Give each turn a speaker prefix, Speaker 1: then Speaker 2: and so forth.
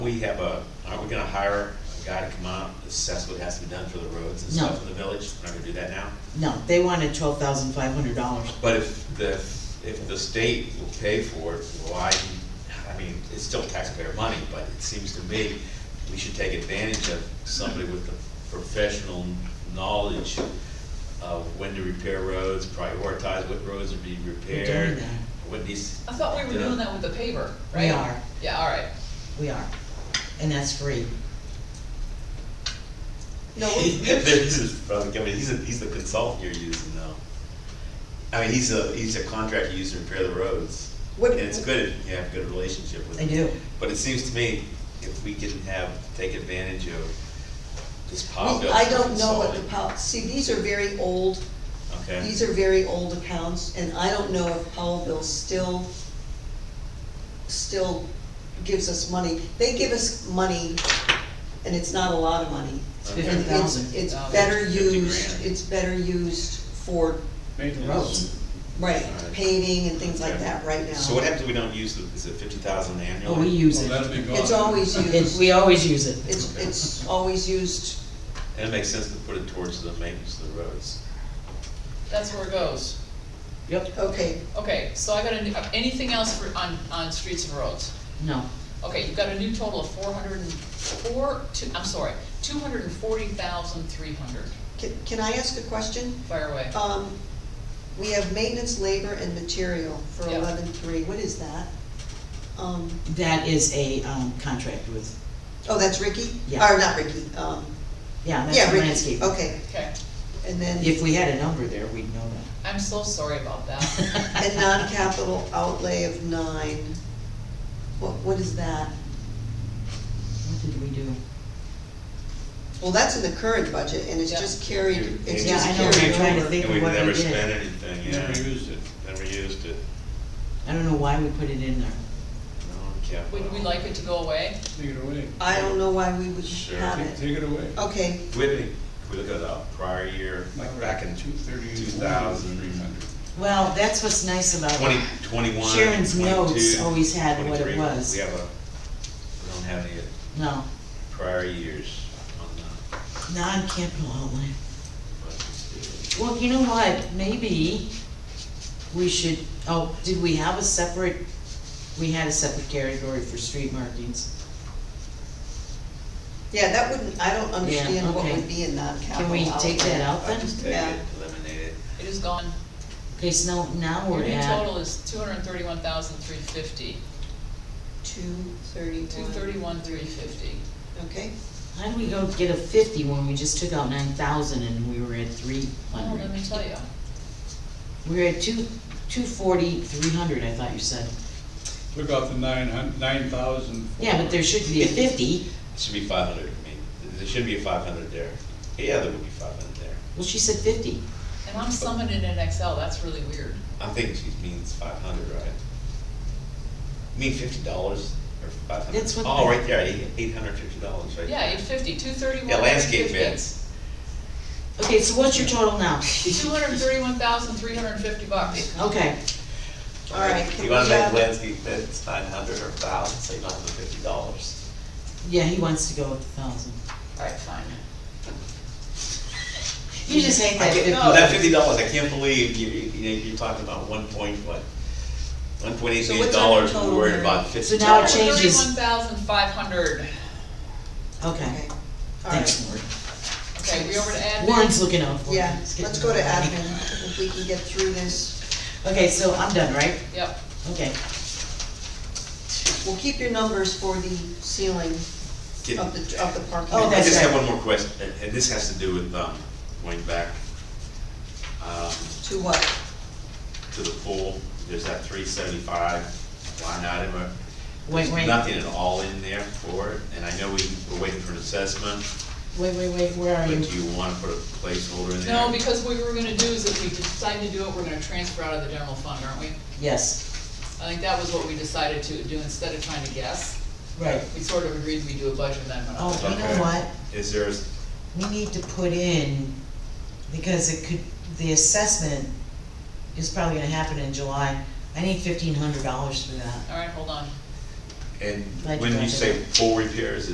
Speaker 1: We have a, aren't we gonna hire a guy to come out, assess what has to be done for the roads and
Speaker 2: No.
Speaker 1: stuff in the village? We're not gonna do that now?
Speaker 2: No, they wanted twelve thousand five hundred dollars.
Speaker 1: But if the, if the state will pay for it, why, I mean, it's still taxpayer money, but it seems to me we should take advantage of somebody with the professional knowledge of when to repair roads, prioritize what roads are being
Speaker 2: We're
Speaker 1: repaired,
Speaker 2: doing that,
Speaker 1: what needs,
Speaker 3: I thought we were
Speaker 1: Yeah.
Speaker 3: doing that with the paver, right?
Speaker 2: we are,
Speaker 3: Yeah, all right.
Speaker 2: we are, and that's free.
Speaker 3: No,
Speaker 1: There's his brother coming, he's a, he's the consultant you're using now. I mean, he's a, he's a contractor used to repair the roads,
Speaker 4: What-
Speaker 1: and it's good if you have a good relationship with
Speaker 2: I
Speaker 1: him.
Speaker 2: do,
Speaker 1: But it seems to me, if we can have, take advantage of this power bill.
Speaker 4: Well, I don't know what the
Speaker 1: consulting,
Speaker 4: Powell, see, these are very old,
Speaker 1: Okay,
Speaker 4: these are very old accounts, and I don't know if Powell Bill still, still gives us money. They give us money, and it's not a lot of money.
Speaker 1: Okay.
Speaker 4: And
Speaker 2: Fifty
Speaker 4: it's-
Speaker 2: thousand. Oh,
Speaker 4: It's better
Speaker 1: Fifty
Speaker 4: used,
Speaker 1: grand.
Speaker 4: it's better used for,
Speaker 5: Maintenance.
Speaker 2: roads.
Speaker 4: right,
Speaker 1: Alright.
Speaker 4: paving and things like
Speaker 1: Okay.
Speaker 4: that right now.
Speaker 1: so what happens if we don't use the, is it fifty thousand
Speaker 2: oh,
Speaker 1: annually?
Speaker 2: we use
Speaker 5: Well,
Speaker 2: it.
Speaker 5: that'd be gone.
Speaker 4: It's always
Speaker 2: It-
Speaker 4: used,
Speaker 2: We always use it,
Speaker 4: it's, it's always used,
Speaker 1: And it makes sense to put it towards the maintenance of the roads.
Speaker 3: That's where it goes.
Speaker 2: yep,
Speaker 4: okay,
Speaker 3: Okay, so I got a, new- anything else for, on, on streets and roads?
Speaker 2: no,
Speaker 3: Okay, you've got a new total of four hundred and four, two, I'm sorry, two hundred and forty thousand three hundred.
Speaker 4: can, can I ask a question?
Speaker 3: Fire away.
Speaker 4: Um, we have maintenance, labor, and material for
Speaker 3: Yeah.
Speaker 4: eleven-three, what is that? Um,
Speaker 2: that is a, um, contract with,
Speaker 4: oh, that's Ricky?
Speaker 2: Yeah.
Speaker 4: Or not Ricky, um,
Speaker 2: yeah, that's
Speaker 4: yeah,
Speaker 2: a
Speaker 4: Ricky,
Speaker 2: landscape.
Speaker 4: okay,
Speaker 3: Okay,
Speaker 4: and then,
Speaker 2: If we had a number there, we'd know
Speaker 3: I'm so sorry about that.
Speaker 2: that.
Speaker 4: and non-capital outlay of nine, what, what is that?
Speaker 2: What did we do?
Speaker 4: Well, that's in the current budget, and it's just carried, it's
Speaker 1: Yeah,
Speaker 4: just
Speaker 1: I know,
Speaker 4: carried over.
Speaker 2: I'm trying to think.
Speaker 1: And we've
Speaker 2: what we
Speaker 1: never
Speaker 2: did.
Speaker 1: spent anything,
Speaker 5: Never
Speaker 1: yeah,
Speaker 5: used it.
Speaker 1: never used it.
Speaker 2: I don't know why we put it in there.
Speaker 1: Non-capital.
Speaker 3: Would we like it to go away?
Speaker 5: Take it away.
Speaker 4: I don't know why we would
Speaker 1: Sure.
Speaker 4: have
Speaker 5: Take-
Speaker 4: it,
Speaker 5: Take it away.
Speaker 4: okay,
Speaker 1: Do we have any- if we look at the prior year, like back in
Speaker 5: Two thirty.
Speaker 1: 2000.
Speaker 5: Three hundred.
Speaker 2: Well, that's what's nice about.
Speaker 1: twenty, twenty-one,
Speaker 2: Oh, Sharon's notes
Speaker 1: 22,
Speaker 2: always had what it
Speaker 1: 23.
Speaker 2: was.
Speaker 1: We have a, we don't have any
Speaker 2: No,
Speaker 1: prior years on the
Speaker 2: non-capital outlay.
Speaker 1: budget.
Speaker 2: Well, you know what, maybe we should, oh, did we have a separate, we had a separate category for street markings.
Speaker 4: yeah, that wouldn't, I don't understand what
Speaker 2: okay.
Speaker 4: would be in non-capital
Speaker 2: Can
Speaker 4: outlay.
Speaker 2: we take that out
Speaker 1: I
Speaker 2: then?
Speaker 1: just take
Speaker 4: Yeah.
Speaker 1: it, eliminate it.
Speaker 3: It is gone.
Speaker 2: Okay, so now, now
Speaker 3: Your
Speaker 2: we're
Speaker 3: new
Speaker 2: at,
Speaker 3: total is two hundred and thirty-one thousand three fifty.
Speaker 4: Two thirty-one.
Speaker 3: Two thirty-one three fifty.
Speaker 4: Okay,
Speaker 2: how did we go get a fifty when we just took out nine thousand and we were at three
Speaker 3: Oh,
Speaker 2: hundred?
Speaker 3: let me tell you.
Speaker 2: We were at two, two forty, three hundred, I thought you said.
Speaker 5: Took out the nine hun, nine thousand.
Speaker 2: Yeah, but there should be a fifty.
Speaker 1: It should be five hundred, I mean, there should be a five hundred there. Yeah, there would be five hundred there.
Speaker 2: Well, she said fifty.
Speaker 3: And I'm summoned in an Excel, that's really weird.
Speaker 1: I'm thinking she means five hundred, right? You mean fifty dollars or five hundred?
Speaker 2: That's what
Speaker 1: Oh,
Speaker 2: the-
Speaker 1: right there, eight, eight hundred fifty dollars, right?
Speaker 3: Yeah, eight fifty, two thirty-one.
Speaker 1: Yeah, landscape bids.
Speaker 2: Okay, so what's your total now?
Speaker 3: Two hundred and thirty-one thousand, three hundred and fifty bucks.
Speaker 2: Okay,
Speaker 4: all right. can
Speaker 1: You wanna
Speaker 4: we uh,
Speaker 1: make
Speaker 4: have-
Speaker 1: landscape bids nine hundred or thousand, so you don't have the fifty dollars.
Speaker 2: yeah, he wants to go with the thousand.
Speaker 3: Alright, fine.
Speaker 2: You just hate that fifty.
Speaker 1: That fifty dollars, I can't believe you, you know, you're talking about one point, what? One point eight
Speaker 4: So
Speaker 1: million
Speaker 4: what's our
Speaker 1: dollars,
Speaker 4: total
Speaker 1: we're worried
Speaker 4: here?
Speaker 1: about fifty
Speaker 2: So now it
Speaker 1: dollars.
Speaker 2: changes.
Speaker 3: Thirty-one thousand, five hundred.
Speaker 2: Okay,
Speaker 4: Okay, all right,
Speaker 2: thanks, Lori.
Speaker 3: Okay, we over to admin.
Speaker 2: Warren's looking out for me.
Speaker 4: yeah,
Speaker 2: He's
Speaker 4: let's
Speaker 2: getting
Speaker 4: go to
Speaker 2: mad at me.
Speaker 4: admin, if we can get through this.
Speaker 2: Okay, so I'm done, right?
Speaker 3: Yep,
Speaker 2: Okay.
Speaker 4: We'll keep your numbers for the ceiling
Speaker 1: Get-
Speaker 4: of the, of the parking.
Speaker 2: Oh,
Speaker 1: I
Speaker 2: that's
Speaker 1: just have
Speaker 2: right.
Speaker 1: one more question, and- and this has to do with, um, going back, um,
Speaker 4: To what?
Speaker 1: to the pool, there's that three seventy-five line item. uh,
Speaker 2: Wait,
Speaker 1: there's
Speaker 2: wait.
Speaker 1: Nothing at all in there for it, and I know we, we're waiting for an assessment,
Speaker 2: Wait, wait, wait, where are
Speaker 1: but
Speaker 2: you?
Speaker 1: do you wanna put a placeholder in there?
Speaker 3: no, because what we were gonna do is if we decide to do it, we're gonna transfer out of the general fund, aren't we?
Speaker 2: Yes,
Speaker 3: I think that was what we decided to do instead of trying to guess.
Speaker 2: right.
Speaker 3: We sort of agreed we do a budget amendment.
Speaker 2: Oh, you
Speaker 1: Uh, Okay.
Speaker 2: know what?
Speaker 1: Is there, a-
Speaker 2: We need to put in, because it could, the assessment is probably gonna happen in July. I need fifteen hundred dollars for that.
Speaker 3: Alright, hold on.
Speaker 6: And
Speaker 7: Like
Speaker 6: when you
Speaker 7: that.
Speaker 6: say full repairs,